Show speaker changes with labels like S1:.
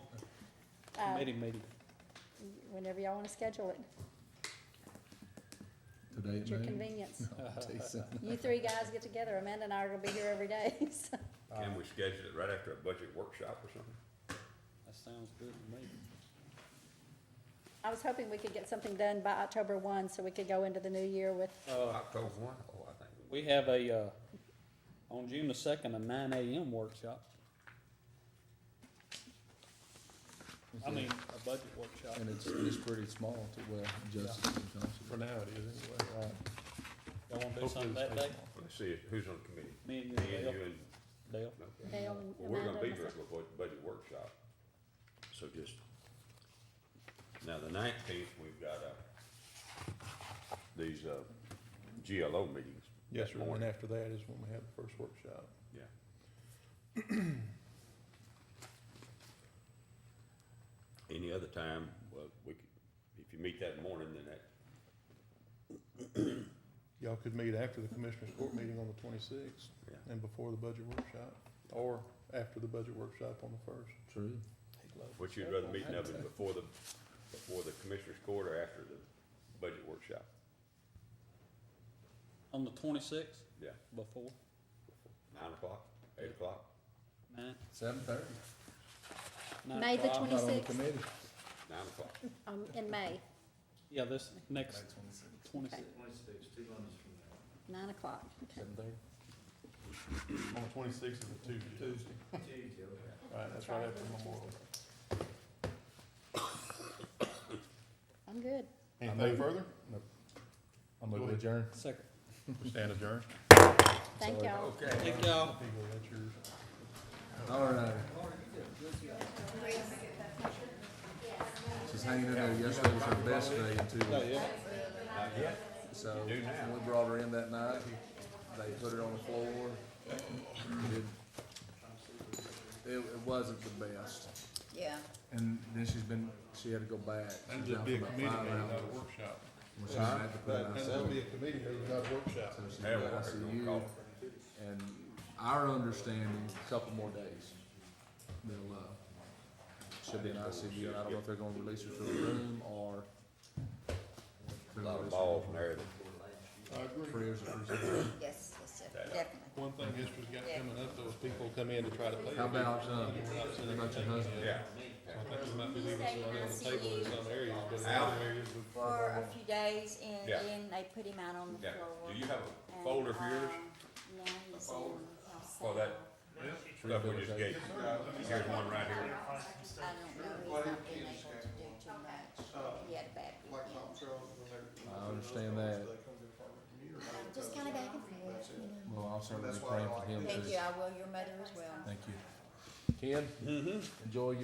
S1: Um,
S2: committee meeting.
S1: whenever y'all wanna schedule it,
S3: Today
S1: at
S3: at
S1: your
S3: noon? Oh,
S1: convenience.
S3: I'll tell you something.
S1: You three guys get together, Amanda and I are gonna be here every day, so.
S2: Um,
S4: Can we schedule it right after a budget workshop or something?
S2: That sounds good to me.
S1: I was hoping we could get something done by October one, so we could go into the new year with,
S2: Uh,
S4: October one? Oh, I think we
S2: we have a, uh, on June the second, a nine AM workshop. I mean, a budget workshop.
S3: And it's, it's pretty small to, well, Justice and
S5: For
S3: Johnson.
S5: now it is anyway.
S3: Right.
S2: Y'all wanna do something that day?
S4: Let's see who's on the committee.
S2: Me and
S4: Me and
S2: you,
S4: you and,
S2: Dale, Dale.
S4: okay.
S1: Dale
S4: Well,
S1: and
S4: we're
S1: Amanda
S4: gonna be
S1: and
S4: here
S1: myself.
S4: for a bu- budget workshop. So just, now the nineteenth, we've got, uh, these, uh, GLO meetings. that
S5: Yes, sir, and
S4: morning.
S5: after that is when we have the first workshop.
S4: Yeah. Any other time, well, we could, if you meet that morning, then that,
S5: Y'all could meet after the commissioners' court meeting on the twenty-sixth
S4: yeah.
S5: and before the budget workshop, or after the budget workshop on the first.
S3: True.
S4: uh, What you'd rather meet in oven before the, before the commissioners court or after the budget workshop?
S2: on the twenty-sixth,
S4: Yeah,
S2: before
S4: nine o'clock, eight o'clock?
S2: nine,
S3: Seven thirty.
S2: nine
S1: May the
S2: o'clock.
S3: Not on the
S1: 26th.
S3: committee.
S4: Nine o'clock.
S1: um, in May,
S2: Yeah, this next twenty-sixth.
S1: nine o'clock.
S3: Seven thirty.
S5: On the twenty-sixth is a Tuesday. Tuesday. Right, that's right after Memorial.
S1: I'm good.
S5: Anything further?
S3: I'm gonna adjourn.
S2: Second.
S5: Stand adjourned.
S1: Thank y'all.
S2: Thank y'all.
S5: Eagle, that's yours.
S3: All right. She's hanging in there. Yesterday was her best day in two weeks.
S2: Yeah,
S3: So when we brought her in that night, they put her on the floor. It- It, it wasn't the best.
S6: Yeah.
S3: And then she's been, she had to go back.
S5: That'd
S3: She's
S5: just
S3: out
S5: be a
S3: for about
S5: committee
S3: five
S5: meeting,
S3: rounds.
S5: not a workshop.
S3: Well, she's had to put it
S5: That-
S3: out.
S5: That'll be a committee meeting, not a workshop.
S3: So she's
S4: Hey,
S3: got
S4: Walker, don't
S3: ICU
S4: call.
S3: and our understanding, a couple more days. They'll, uh, she'll be in ICU and I don't know if they're gonna release her to the room or.
S4: A lot of balls in there that
S5: I agree.
S3: Prayers are presented.
S6: Yes, yes, sir, definitely.
S5: One thing history's got coming up, those people come in to try to pay.
S3: How about, uh, how about your husband?
S4: Yeah.
S5: I think we might be leaving some on the table in some areas, but in other areas, we
S6: For a few days and
S4: Yeah.
S6: then they put him out on the
S4: Yeah,
S6: floor.
S4: do you have a
S6: And,
S4: folder for yours?
S6: um, Now he's in.
S4: folder?
S6: house
S4: For that stuff we just gave? you? Here's one right here.
S6: I don't know, he's not been able to do too much. He had a bad weekend.
S3: I understand that.
S6: Just kinda back and forth, you know.
S3: Well, I'll certainly be praying for him too.
S6: Thank you, I will, your mother as well.
S3: Thank you. Ken? Mm-hmm. Enjoy your